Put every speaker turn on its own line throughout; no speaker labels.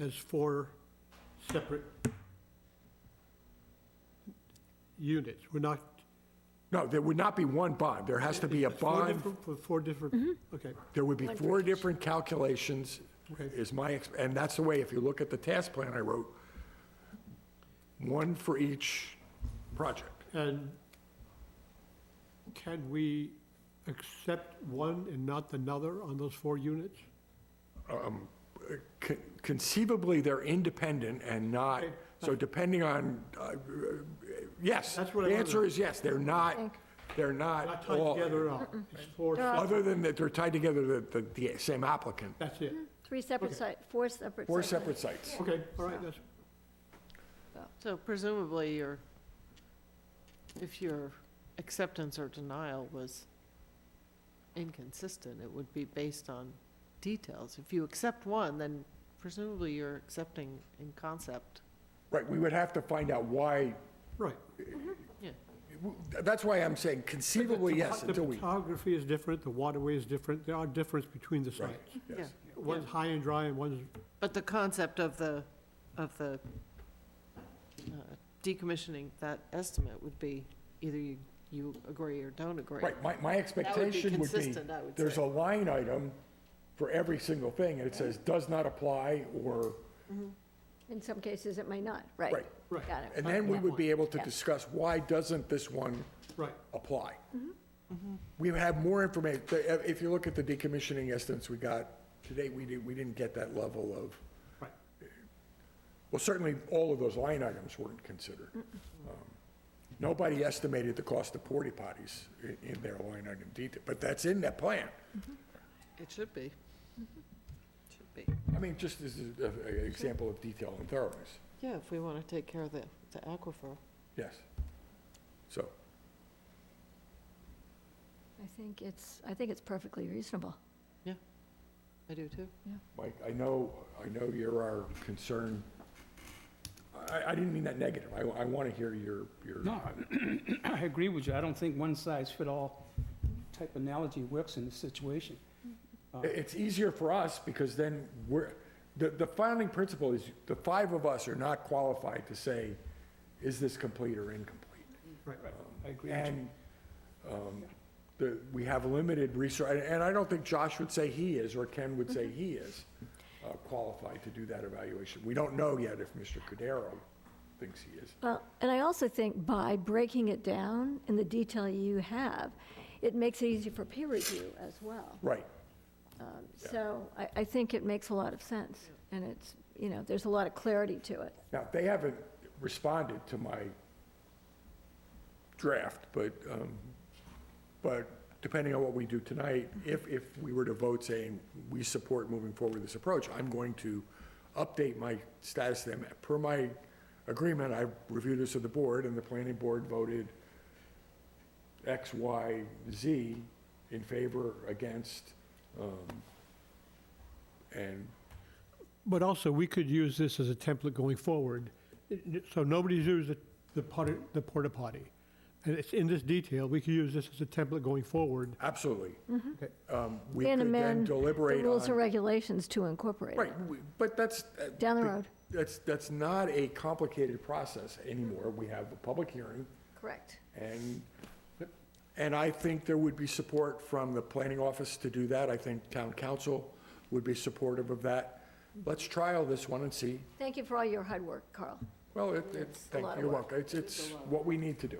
as four separate units. We're not.
No, there would not be one bond. There has to be a
it's four
bond.
different- For four different, okay.
There would be four different calculations,
Okay.
is my, ex- and that's the way, if you look at the task plan I wrote, one for each project.
And can we accept one and not another on those four units?
Con- Conceivably, they're independent and not,
Okay.
so depending on, uh, yes.
That's what I
The
wanted.
answer is yes, they're not, they're
Not
not
tied
all,
together at all. It's four, sep-
other than that they're tied together, the- the, the same applicant.
that's it.
Three separate site, four separate.
Four
site plans.
separate sites.
Okay, all right, that's,
So presumably, your, if your acceptance or denial was inconsistent, it would be based on details. If you accept one, then presumably you're accepting in concept.
Right, we would have to find out why,
right.
Yeah.
that's why I'm saying conceivably, yes,
The
until we,
topography is different, the waterway is different, there are differences between the sites.
Yeah.
yes.
One's high and dry and one's,
But the concept of the, of the uh, decommissioning, that estimate would be either you, you agree or don't agree.
Right, my, my
That would be
expectation would be,
consistent, I would
there's a
say.
line item for every single thing, and it says, does not apply, or,
In some cases, it may not, right?
Right.
Right.
Got it.
and then we would be able to
Yeah.
discuss, why doesn't this one
right.
apply?
Mm-hmm.
We have more information, if you look at the decommissioning estimates we got today, we didn't, we didn't get that level of,
Right.
well, certainly, all of those line items weren't considered. Um, Nobody estimated the cost of porta potties in, in their line item detail, but that's in that plan.
It should be. Should be.
I mean, just as a- a- an example of detail and thoroughness,
Yeah, if we want to take care of the, the aquifer.
yes. So,
I think it's, I think it's perfectly reasonable.
I do too.
Mike, I know, I know you're our concern. I, I didn't mean that negative. I, I want to hear your, your.
No, I agree with you. I don't think one size fit all type analogy works in this situation.
I- It's easier for us because then we're, the, the founding principle is the five of us are not qualified to say, is this complete or incomplete?
I agree with you.
And um, the, we have limited resource, and I don't think Josh would say he is, or Ken would say he is uh, qualified to do that evaluation. We don't know yet if Mr. Cudero thinks he is.
Well, and I also think by breaking it down in the detail you have, it makes it easy for peer review as well.
Right.
Um, So I, I think it makes a lot of sense, and it's, you know, there's a lot of clarity to it.
Now, they haven't responded to my draft, but, um, but depending on what we do tonight, if, if we were to vote saying we support moving forward with this approach, I'm going to update my status to them. Per my agreement, I reviewed this with the board, and the planning board voted X, Y, Z in favor, against, um, and
But also, we could use this as a template going forward. It- n- So nobody's used the- the potter- the porta potty. And it's in this detail, we could use this as a template going forward.
absolutely. Um, We
Mm-hmm. And
could then
amend the
deliberate on.
rules and regulations to incorporate it.
Right, we- but that's. uh,
Down the
be-
road.
That's, that's not a complicated process anymore. We have a public hearing,
Correct.
and, and I think there would be support from the planning office to do that. I think town council would be supportive of that. Let's trial this one and see.
Thank you for all your hard work, Carl.
Well, it- it's,
a
thank
lot of
you,
work.
welcome. It's, it's what we need to do.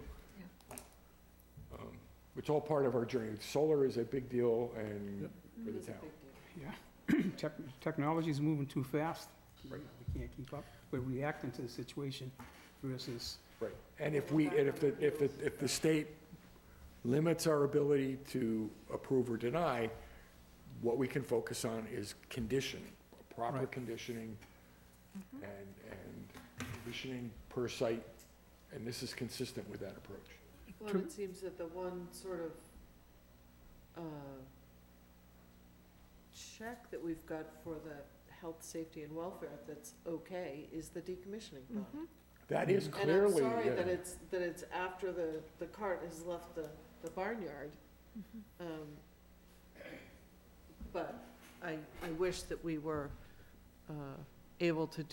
Um, It's all part of our journey. Solar is a big deal and for the town.
Tech- Technology's moving too fast. Right. We can't keep up. We're reacting to the situation versus,
Right, and if we, and if the, if the, if the state limits our ability to approve or deny, what we can focus on is conditioning, proper
Right.
conditioning,
Mm-hmm.
and, and conditioning per site, and this is consistent with that approach.
Well, it seems that the one sort of, uh, check that we've got for the health, safety, and welfare that's okay is the decommissioning
Mm-hmm.
bond.
That is
And I'm
clearly,
sorry that
yeah,
it's, that it's after the, the cart has left the, the barnyard.
Mm-hmm.
Um, But I, I wish that we were, uh, able to